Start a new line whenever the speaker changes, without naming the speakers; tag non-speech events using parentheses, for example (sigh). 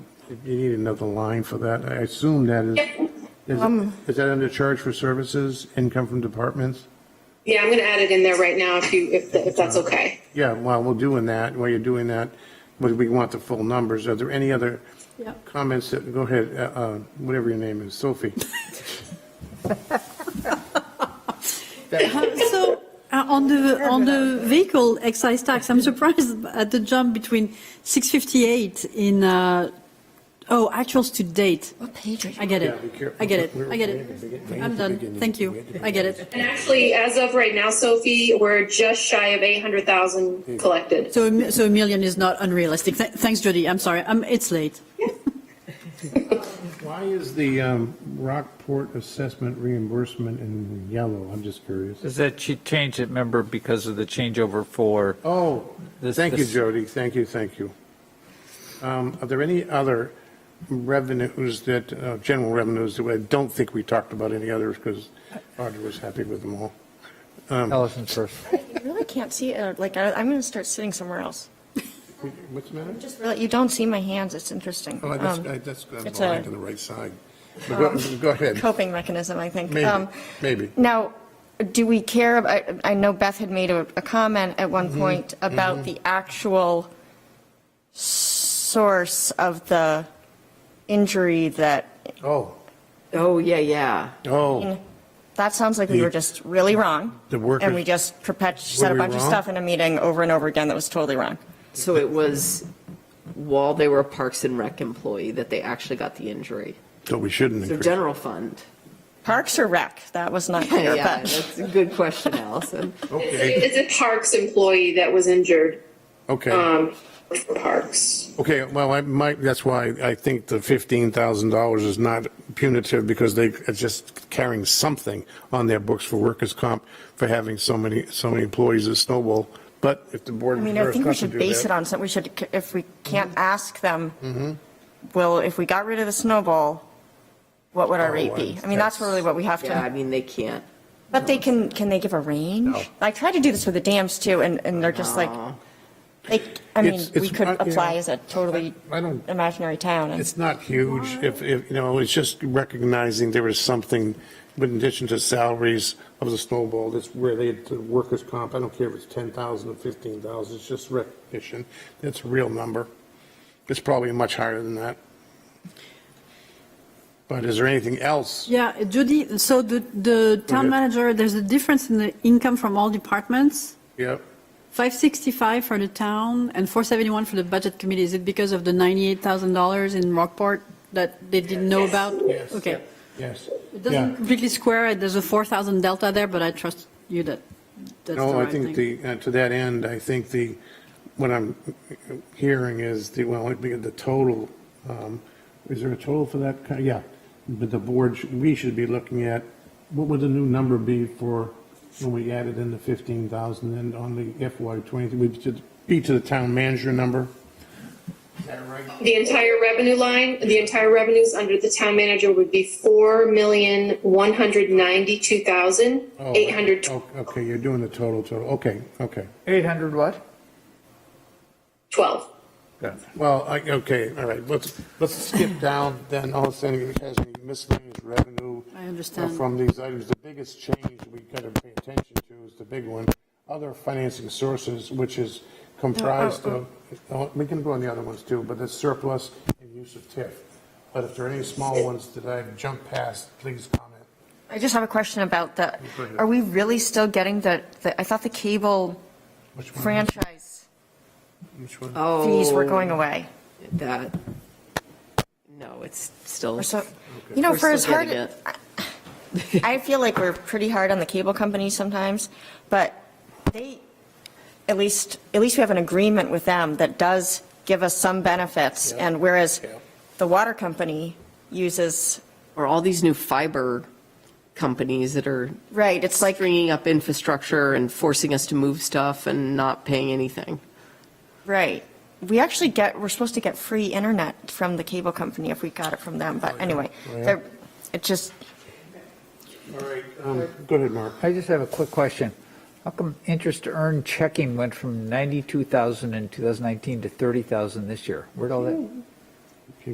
You need another line for that. I assume that is, is, is that under charge for services, income from departments?
Yeah, I'm gonna add it in there right now if you, if, if that's okay.
Yeah, while we're doing that, while you're doing that, we- we want the full numbers. Are there any other
Yeah.
comments? that- Go ahead, uh, uh, whatever your name is, Sophie.
(coughs) So, uh, on the, on the vehicle excise tax, I'm surprised at the jump between 658 in, uh, oh, actuals to date.
What page are you?
I get
Yeah, be
it.
careful.
I get it. I get
We're- we're-
it.
we're- we're-
I'm done.
beginning.
Thank you. I get it.
And actually, as of right now, Sophie, we're just shy of eight hundred
Hmm.
thousand collected.
So, a mi- so a million is not unrealistic. Th- Thanks, Jody. I'm sorry. Um, It's late.
(laughs) Why is the um, Rockport assessment reimbursement in yellow? I'm just curious.
Is that she changed it, remember, because of the changeover for,
Oh,
This-
thank you,
this-
Jody, thank you, thank you. Um, Are there any other revenues that, uh, general revenues, that I don't think we talked about any others, because Audra was happy with them all.
Allison's first.
I really can't see it. Like, I, I'm gonna start sitting somewhere else.
What's the matter?
Just really, you don't see my hands. It's interesting.
Oh, that's,
Um,
I- that's, I'm
it's
blind
a- Um,
on the right side. But Go go ahead,
Coping mechanism, I think.
maybe,
Um,
maybe.
Now, do we care, ab- I, I know Beth had made a, a comment at
Mm-hmm,
one point about the actual source of the injury that,
Oh,
Oh, yeah, yeah.
oh,
that sounds like we
The-
were just really wrong.
The workers-
And we just perpet, said
Were
a
we
bunch of
wrong?
stuff in a meeting over and over again that was totally wrong.
So it was while they were a Parks and Rec employee that they actually got the injury.
so we shouldn't
So
increase.
general fund. (laughs)
Parks or rec? That was not clear,
Yeah,
but
that's a good
(laughs)
question, Allison.
Okay,
It's it's a parks employee that was injured,
uh,
okay,
um, for parks.
okay, well, I might, that's why I think the $15,000 is not punitive, because they are just carrying something on their books for workers' comp for having so many, so many employees at Snowball, but if the board
I mean, I
prefers
think we
not to
should
do
base
that.
it
Mm-hmm.
on something, we should, if we can't ask them, well, if we got rid of the snowball, what would our
Oh,
rate be?
I-
I mean, that's really what we have
Yeah, I
to,
mean, they can't.
but they can, can they give a range? I tried to do this with the dams too, and, and they're just like, they, I mean,
It's- it's
we could
not, you know,
apply as a totally
I- I don't-
imaginary town, and
It's not huge, if, if, you know, it's just recognizing there is something, but in addition to salaries of the Snowball, that's related to workers' comp, I don't care if it's 10,000 or 15,000, it's just recognition, that's a real number. It's probably much higher than that. But is there anything else?
Yeah, Jody, so the, the town
ahead.
manager, there's a difference in the income from all departments.
Yep,
565 for the town and 471 for the budget committee. Is it because of the $98,000 in Rockport that they didn't know about?
Yes.
Okay.
yes.
It doesn't completely square it. There's a 4,000 delta there, but I trust you that that's the
No, I
right
think
thing.
the, uh, to that end, I think the, what I'm hearing is the, well, it'd be the total, um, is there a total for that? kind- Yeah, but the board, sh- we should be looking at, what would the new number be for when we added in the 15,000 and on the FY 23, we should be to the town manager number? Is that right?
The entire revenue line, the entire revenues under the town manager would be four million, one hundred ninety-two thousand,
Oh,
eight hundred.
oh, Okay, you're doing the total, total, okay, okay.
800 what?
12.
Well, I, okay, all right, let's, let's skip down then, all of a sudden, it has any miscellaneous revenue.
I understand.
uh, From these items, the biggest change we gotta pay attention to is the big one, other financing sources, which is comprised of, oh, we can go on the other ones too, but it's surplus and use of TIF. But if there are any small ones that I've jumped past, please comment.
I just have a question about the,
Go ahead.
are we really still getting the, the- I thought the cable
Which one?
franchise
Which one?
Oh.
fees were going away.
That, no, it's still.
We're so, you know,
We're
for as
still
hard,
getting
I feel like we're pretty hard on the cable companies sometimes, but they, at least, at least we have an agreement with them that does give us some benefits.
Yeah.
And whereas
Yeah.
the water company uses,
Or all these new fiber companies that are
right, it's like,
stringing up infrastructure and forcing us to move stuff and not paying anything.
right. We actually get, we're supposed to get free internet from the cable company if we got it from them,
Oh,
but anyway, they're- it just,
All right, um, go ahead, Mark.
I just have a quick question. How come interest earned checking went from 92,000 in 2019 to 30,000 this year? Where'd all that,